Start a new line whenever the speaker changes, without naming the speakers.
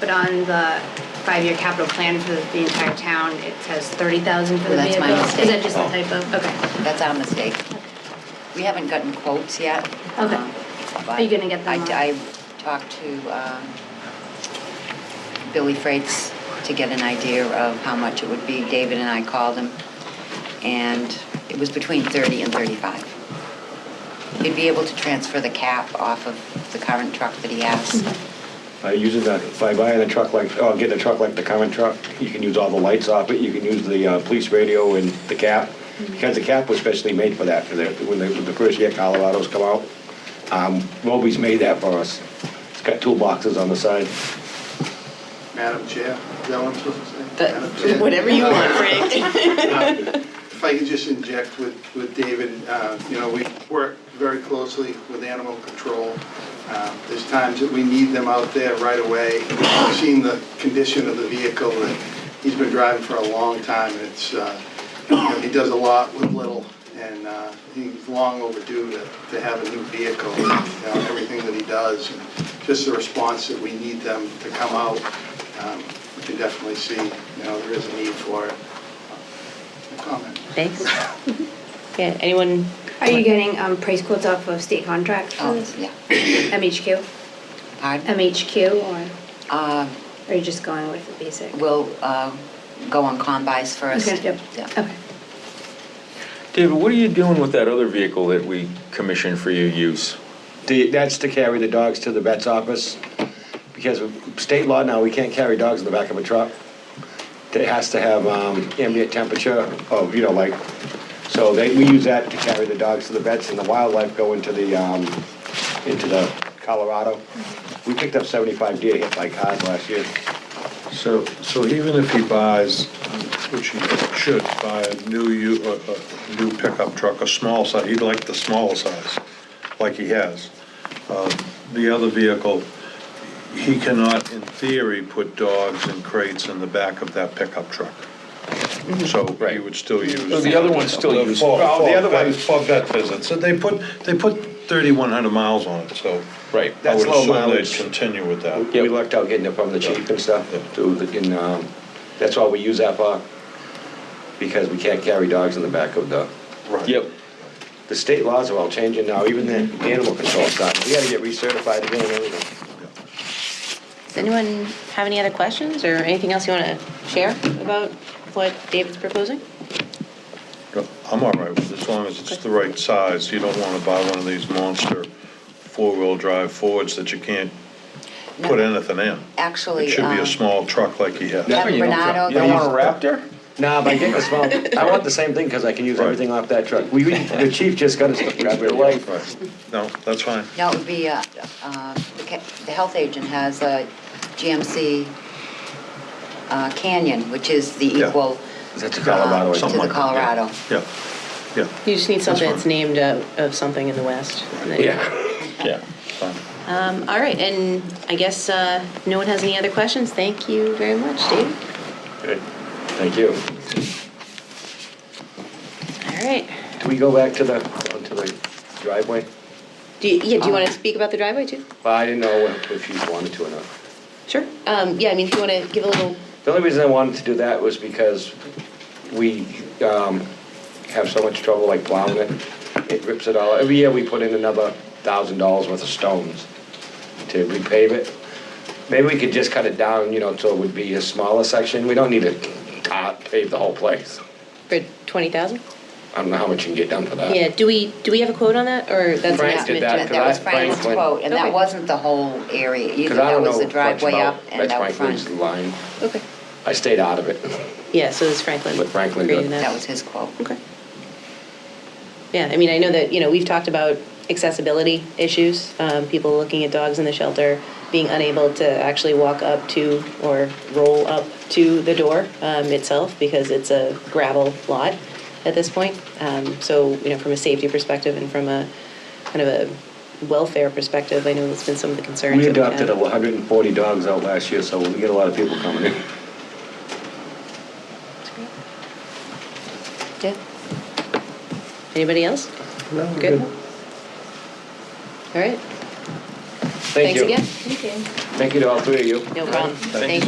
but on the five-year capital plan for the entire town, it says thirty thousand for the
Well, that's
vehicles.
my
Is that just
mistake. Oh.
a typo? Okay.
That's our mistake. We haven't gotten quotes yet.
Okay.
um,
Are you
but
gonna get them
I- I,
on?
talked to um, Billy Freites to get an idea of how much it would be. David and I called him, and it was between 30 and 35. He'd be able to transfer the cap off of the current truck that he has.
Uh, Using that, if I buy a truck like, oh, getting a truck like the current truck, you can use all the lights off it, you can use the uh, police radio and the cap. Because the cap was specially made for that, for the, when the, the first year Colorado's come out. Um, Roby's made that for us. It's got two boxes on the side.
Madam Chair, is that what I'm supposed to say? Madam Chair? Uh,
That- Whatever you want, Frank.
If I could just inject with, with David, uh, you know, we work very closely with animal control. Uh, There's times that we need them out there right away. We've seen the condition of the vehicle, and he's been driving for a long time, and it's, uh, you know, he does a lot with little, and uh, he's long overdue to, to have a new vehicle, you know, everything that he does, and just the response that we need them to come out. um, We can definitely see, you know, there is a need for it. A comment.
Thanks. Yeah, anyone?
Are you getting um, price quotes off of state contracts for
Oh,
this?
yeah.
MHQ?
Pardon?
MHQ, or
Uh,
are you just going with the basic?
We'll uh, go on combis first.
Okay, yep.
Yeah.
Okay.
David, what are you doing with that other vehicle that we commissioned for your use?
The, that's to carry the dogs to the vet's office. Because of state law now, we can't carry dogs in the back of a truck. It has to have um, ambient temperature of, you know, like, so they, we use that to carry the dogs to the vets and the wildlife go into the, um, into the Colorado. We picked up 75 deer hit by cars last year.
So, so even if he buys, which he should, buy a new, u- a a new pickup truck, a small size, he'd like the small size, like he has. Uh, The other vehicle, he cannot, in theory, put dogs and crates in the back of that pickup truck. So he
Right.
would still use.
So the other one's still used.
For-
Well, the
for
other
vet-
one's-
For vet visits, so they put, they put 3,100 miles on it, so.
Right.
I
That's
would
low
assume they'd
mileage.
continue with that.
We lucked out getting it from the chief and stuff, too, and, um, that's why we use that for, because we can't carry dogs in the back of the
Right.
Yep.
The state laws are all changing now, even the animal control side. We gotta get recertified again and everything.
Does anyone have any other questions or anything else you want to share about what David's proposing?
I'm all right with it, as long as it's the right size. You don't want to buy one of these monster four-wheel drive Fords that you can't put anything in.
Actually.
It should be
um,
a small truck like he has.
Yeah.
You don't-
Bernardo,
You don't want a Raptor?
Nah, but I get the small, I want the same thing, cause I can use
Right.
everything off that truck. We, we- the chief just got us, grab your life.
Right. No, that's fine.
No, it would be, uh, uh, the ca- the health agent has a GMC uh, Canyon, which is the
Yeah.
equal.
That's a
uh,
Colorado, I
To
think.
Something
the
like that, yeah.
Colorado.
Yeah, yeah,
You just need something
fine.
that's named uh, of something in the West. and then-
Yeah.
Yeah.
fine.
Um, All right, and I guess uh, no one has any other questions. Thank you very much, David.
Good. Thank you.
All right.
Do we go back to the, to the driveway?
Do you, yeah, do you
Um,
want to speak about the driveway too?
Well, I didn't know if if you wanted to or not.
Sure. Um, yeah, I mean, if you want to give a little,
The only reason I wanted to do that was because we um, have so much trouble like plowing it. It rips it all. Every year we put in another thousand dollars worth of stones to repave it. Maybe we could just cut it down, you know, so it would be a smaller section. We don't need to tar- pave the whole place.
for 20,000?
I don't know how much you can get done for that.
Yeah, do we, do we have a quote on that or that's an
Frank did
estimate?
that,
Jen?
That that was
That- Frank
Frank's
went-
quote, and that
Okay.
wasn't the whole area either.
Because I
That
don't
was
know
the
much about,
driveway up and
that's
out
Franklin's
front.
line.
Okay.
I stayed out of it.
Yeah, so it's Franklin.
But Franklin
creating
did.
That was his quote.
Okay. Yeah, I mean, I know that, you know, we've talked about accessibility issues, um, people looking at dogs in the shelter, being unable to actually walk up to or roll up to the door um, itself because it's a gravel lot at this point. Um, so, you know, from a safety perspective and from a kind of a welfare perspective, I know that's been some of the concerns.
We
that had.
adopted 140 dogs out last year, so we get a lot of people coming in.
Yeah. Anybody else?
No,
Good. All right.
Thank you.
Thanks again.
Thank you to all three of you.
No problem.
Thank you.
Thank you.